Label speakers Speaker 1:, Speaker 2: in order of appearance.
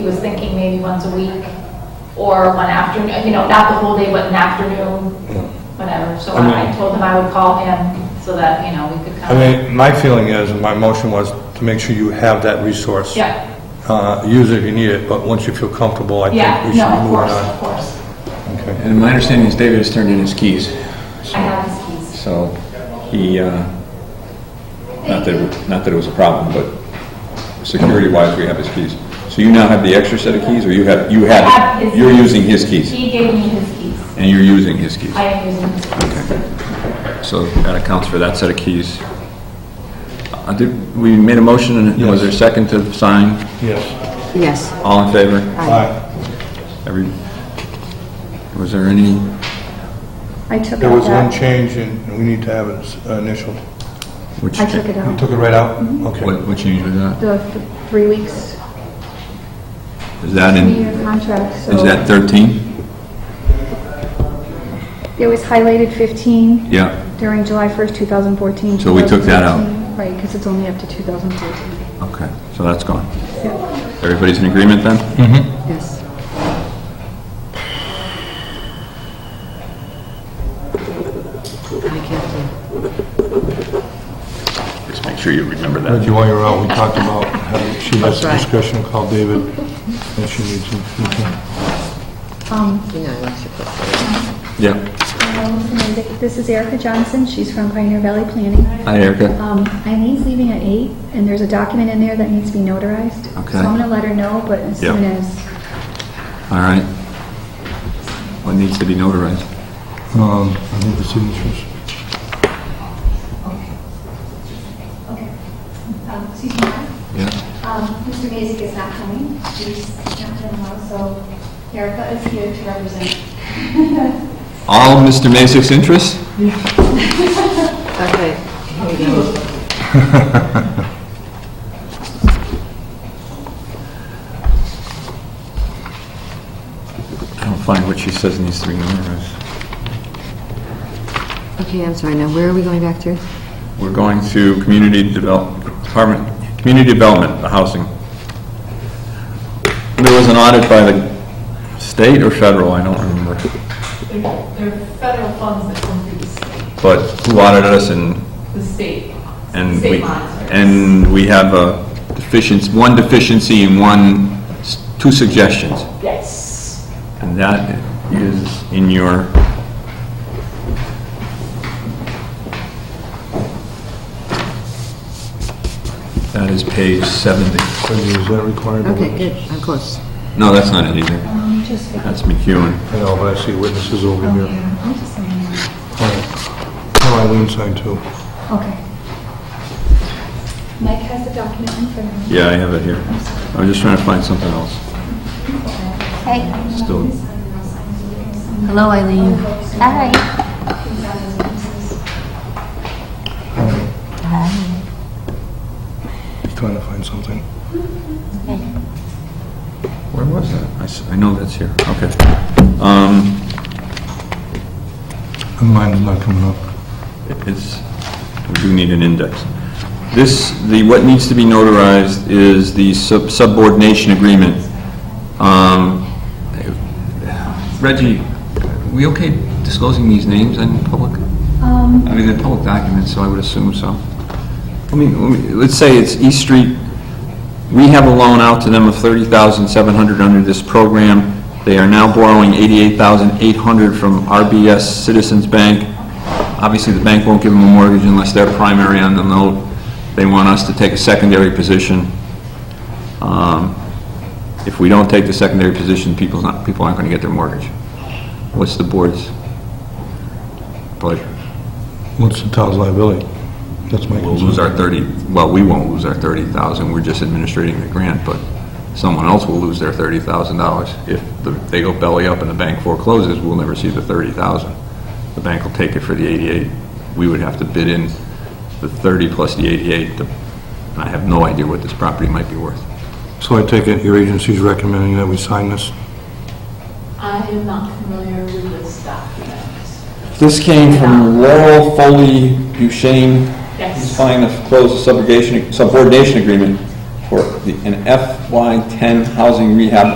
Speaker 1: He was thinking maybe once a week or one afternoon, you know, not the whole day, but an afternoon, whatever. So
Speaker 2: I mean-
Speaker 1: I told him I would call him so that, you know, we could
Speaker 2: I
Speaker 1: come.
Speaker 2: mean, my feeling is, and my motion was to make sure you have that resource.
Speaker 1: Yeah,
Speaker 2: Uh, Use it if you need it, but once you feel comfortable, I think
Speaker 1: yeah,
Speaker 2: we should
Speaker 1: no, of
Speaker 2: move
Speaker 1: course, of
Speaker 2: on.
Speaker 1: course.
Speaker 2: Okay.
Speaker 3: And my understanding is David has turned in his keys.
Speaker 1: I have his keys.
Speaker 3: So he, uh, not that, not that it was a problem, but security-wise, we have his keys. So you now have the extra set of keys, or you have, you
Speaker 1: I have
Speaker 3: have,
Speaker 1: his
Speaker 3: you're
Speaker 1: keys.
Speaker 3: using his keys?
Speaker 1: He gave me his keys.
Speaker 3: And you're using his keys?
Speaker 1: I am using his keys.
Speaker 3: So that accounts for that set of keys. Uh, did- We made a motion, and was there a second to sign?
Speaker 2: Yes.
Speaker 4: Yes.
Speaker 3: All in favor?
Speaker 2: Aye.
Speaker 3: Every, was there any,
Speaker 4: I took
Speaker 2: There was
Speaker 4: out
Speaker 2: one
Speaker 4: that,
Speaker 2: change, and and we need to have it s- initialed.
Speaker 3: which,
Speaker 4: I took it
Speaker 2: You
Speaker 4: out,
Speaker 2: took it right out?
Speaker 1: Mm-hmm.
Speaker 2: Okay.
Speaker 3: what what change was that?
Speaker 4: the th- three weeks,
Speaker 3: Is that in,
Speaker 4: three-year contract, so.
Speaker 3: is that 13?
Speaker 4: It was highlighted 15
Speaker 3: Yeah.
Speaker 4: during July 1st, 2014.
Speaker 3: So we took that out.
Speaker 4: 2015. Right, because it's only up to 2014.
Speaker 3: Okay, so that's gone. Everybody's in agreement then?
Speaker 4: Yes.
Speaker 3: Just make sure you remember that.
Speaker 2: Reggie, while you're out, we talked about, having- she has
Speaker 5: That's
Speaker 2: a
Speaker 5: right.
Speaker 2: discussion, call David, and she needs him. Okay.
Speaker 5: You know, unless you put-
Speaker 3: Yeah.
Speaker 4: Um, This is Erica Johnson, she's from Pioneer Valley Planning.
Speaker 3: Hi, Erica.
Speaker 4: Um, Eileen's leaving at 8, and there's a document in there that needs to be notarized.
Speaker 3: Okay.
Speaker 4: So I'm going to let her know, but as
Speaker 3: Yeah.
Speaker 4: soon as,
Speaker 3: All right. What needs to be notarized?
Speaker 2: Um, I need the signatures.
Speaker 6: Okay. Um, Excuse me,
Speaker 3: Yeah.
Speaker 6: um, Mr. Mazik is not coming, he's not feeling well, so Erica is here to represent.
Speaker 3: All Mr. Masick's interests?
Speaker 5: Okay, here we go.
Speaker 3: I don't find what she says needs to be notarized.
Speaker 5: Okay, I'm sorry, now where are we going back to?
Speaker 3: We're going to community develop, department, community development, the housing. There was an audit by the state or federal, I don't remember.
Speaker 7: They're they're federal funds that come through the state,
Speaker 3: But who audited us and
Speaker 7: the state, the
Speaker 3: And
Speaker 7: state
Speaker 3: we,
Speaker 7: monitors.
Speaker 3: and we have a deficiency, one deficiency and one, s- two suggestions.
Speaker 7: Yes.
Speaker 3: And that is in your, that is page 70.
Speaker 2: Reggie, is that required?
Speaker 5: Okay, good, I'm close.
Speaker 3: No, that's not it either.
Speaker 4: um, just, I
Speaker 3: That's McEwen.
Speaker 2: I know, but I see witnesses over
Speaker 1: Oh,
Speaker 2: here.
Speaker 4: just, um,
Speaker 2: All right. Oh, Eileen signed too.
Speaker 4: okay.
Speaker 6: Mike has the document in front of him.
Speaker 3: Yeah, I have it here. I'm just trying to find something else. Still,
Speaker 6: Hello, Eileen. Hi.
Speaker 2: He's trying to find something.
Speaker 3: where was that? I s- I know that's here, okay. Um,
Speaker 2: And mine's not coming up.
Speaker 3: It's, we do need an index. This, the, what needs to be notarized is the sub- subordination agreement. Um, Reggie, we okay disclosing these names in public?
Speaker 4: Um,
Speaker 3: I mean, they're public documents, so I would assume so. I mean, let me- let's say it's East Street, we have a loan out to them of thirty thousand seven hundred under this program. They are now borrowing eighty-eight thousand eight hundred from RBS Citizens Bank. Obviously, the bank won't give them a mortgage unless they're primary on the note. They want us to take a secondary position. Um, If we don't take the secondary position, people's not, people aren't gonna get their mortgage. What's the board's pleasure?
Speaker 2: What's the town's liability? That's my
Speaker 3: We'll lose
Speaker 2: concern.
Speaker 3: our 30, well, we won't lose our 30,000, we're just administrating the grant, but someone else will lose their $30,000. If the- they go belly up and the bank forecloses, we'll never see the 30,000. The bank will take it for the 88. We would have to bid in the 30 plus the 88. The- I have no idea what this property might be worth.
Speaker 2: So I take it your agency's recommending that we sign this?
Speaker 7: I am not familiar with this document.
Speaker 3: This came from Laurel Foley Duchesne.
Speaker 7: Yes.
Speaker 3: He's filing to close the subrogation- subordination agreement for the- an FY10 housing rehab